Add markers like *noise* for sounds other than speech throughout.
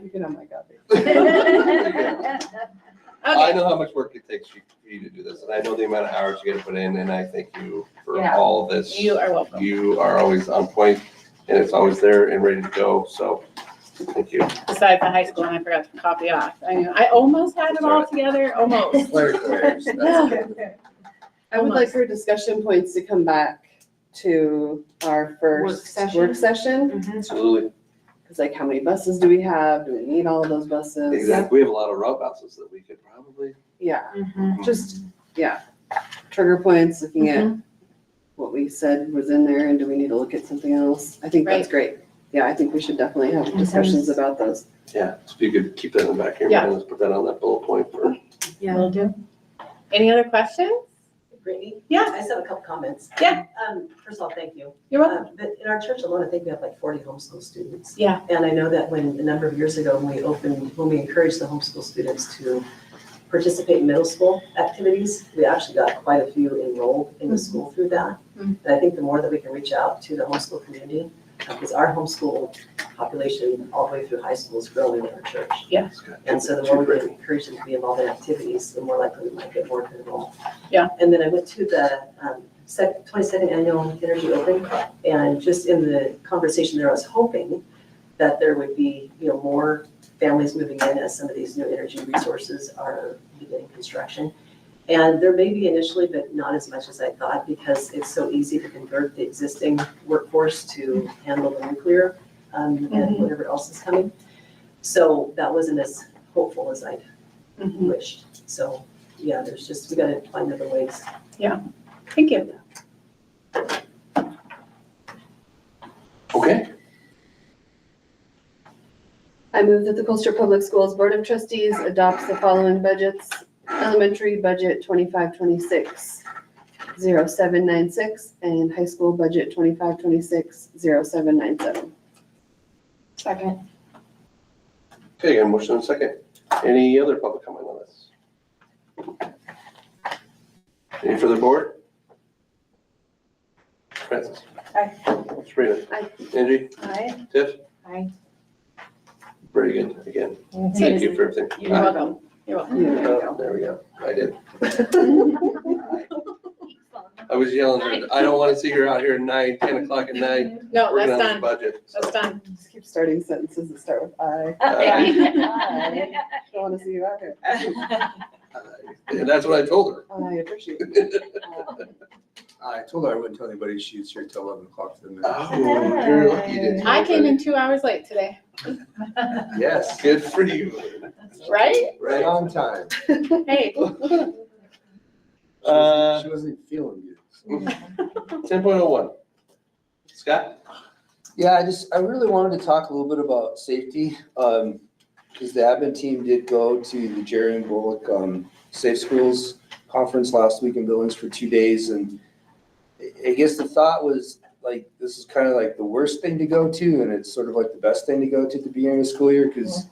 You can have my copy. I Okay, know how much work it takes you- for you to do this, and I know the amount of hours you gotta put in, and I thank you for Yeah. all of this. you are welcome. You are always on point, and it's always there and ready to go, so thank you. Besides the high school, and I forgot to copy off. I mean, I almost had it all *laughs* together, almost. Larry, *laughs* Larry's- that's No. good. I would like Almost. for discussion points to come back to our first session? work session. Absolutely, Cause like, how many buses do we have? Do we need all of those buses? exactly. We have a lot of row houses that we could probably, Yeah, just, yeah, trigger points, looking at what we said was in there and do we need to look at something else? I think that's great. Yeah, I think we should definitely have discussions about those. yeah, if you could keep that in the back of your Yeah. mind, let's put that on that bullet point for. Yeah. Will do. Any other questions? Brittany? Yeah. I just have a couple comments. Yeah. Um, first of all, thank you. You're welcome. Um, But in our church alone, I think we have like forty homeschool students. Yeah. And I know that when, a number of years ago, when we opened, when we encouraged the homeschool students to participate in middle school activities, we actually got quite a few enrolled Mm-hmm. in the school through that. Mhm. And I think the more that we can reach out to the homeschool community, because our homeschool population all the way through high school is growing in our church. That's good. And so the more we encourage them to be involved in activities, the more likely we might get more to enroll. Yeah. And then I went to the um, sec- 22nd Annual Energy Open, and just in the conversation there, I was hoping that there would be, you know, more families moving in as some of these new energy resources are beginning construction. And there may be initially, but not as much as I thought, because it's so easy to convert the existing workforce to handle the nuclear um, and Mhm. whatever else is coming. So that wasn't as hopeful as I'd Mhm. wished. So, yeah, there's just, we gotta find other ways. Thank you. Okay, I move that the Colchester Public Schools Board of Trustees adopts the following budgets. Elementary budget twenty-five, twenty-six, zero seven nine six, and high school budget twenty-five, twenty-six, zero seven nine seven. *laughs* Second. okay, I got a motion and a second. Any other public comment on this? Any further board? Francis? Aye. Sabrina? Aye. Angie? Aye. Tiff? Aye. Very good, again, thank you for everything. You're welcome. You're welcome. Uh, There we go, I did. I was yelling, I don't want to see her out here at nine, ten o'clock at night, No, working Oh, that's on this done. budget. so. That's done. Just keep starting sentences that start with I. Don't wanna see you out here. And that's what I told her. *laughs* I appreciate it. Uh, I told her I wouldn't tell anybody she's here till eleven o'clock for the minute. Oh, you're lucky, didn't you? I came in two hours late today, Yes, Good for you. right? right Right? on time. She *laughs* Hey, wasn't- Uh, She wasn't feeling good. ten point oh one. Scott? Yeah, I just, I really wanted to talk a little bit about safety, um, because the admin team did go to the Jerry and Bullock, um, Safe Schools Conference last week in Billings for two days, and I- I guess the thought was, like, this is kind of like the worst thing to go to, and it's sort of like the best thing to go to at the beginning of the school year, because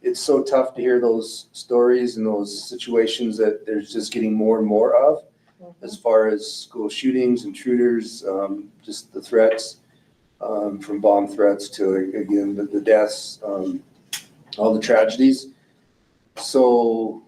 it's so tough to hear those stories and those situations that there's just getting more and more of, as far as school shootings, intruders, um, just the threats um, from bomb threats to, again, the, the deaths, um, all the tragedies. So,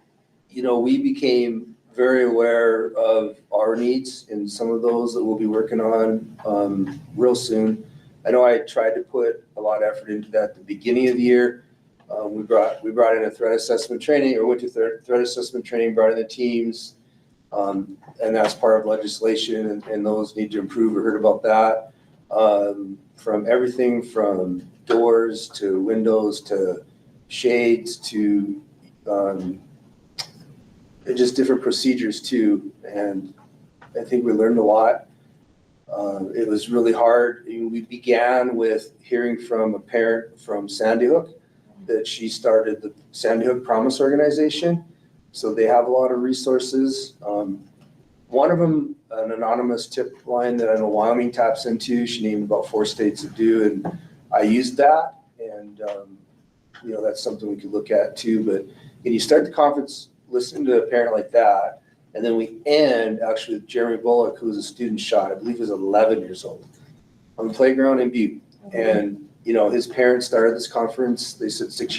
you know, we became very aware of our needs and some of those that we'll be working on, um, real soon. I know I tried to put a lot of effort into that at the beginning of the year. Um, we brought, we brought in a threat assessment training, or went to threat, threat assessment training, brought in the teams. Um, and that's part of legislation and, and those need to improve. We heard about that um, from everything from doors to windows to shades to um, just different procedures too. And I think we learned a lot. Uh, it was really hard. I mean, We began with hearing from a parent from Sandy Hook that she started the Sandy Hook Promise Organization. So they have a lot of resources. Um, one of them, an anonymous tip line that I know Wyoming taps into, she named about four states that do, and I used that. And, um, you know, that's something we could look at too, but when you start the conference, listening to a parent like that, and then we end actually with Jeremy Bullock, who was a student shot, I believe he was eleven years old, on the playground in Butte. And, you know, his parents started this conference, they said six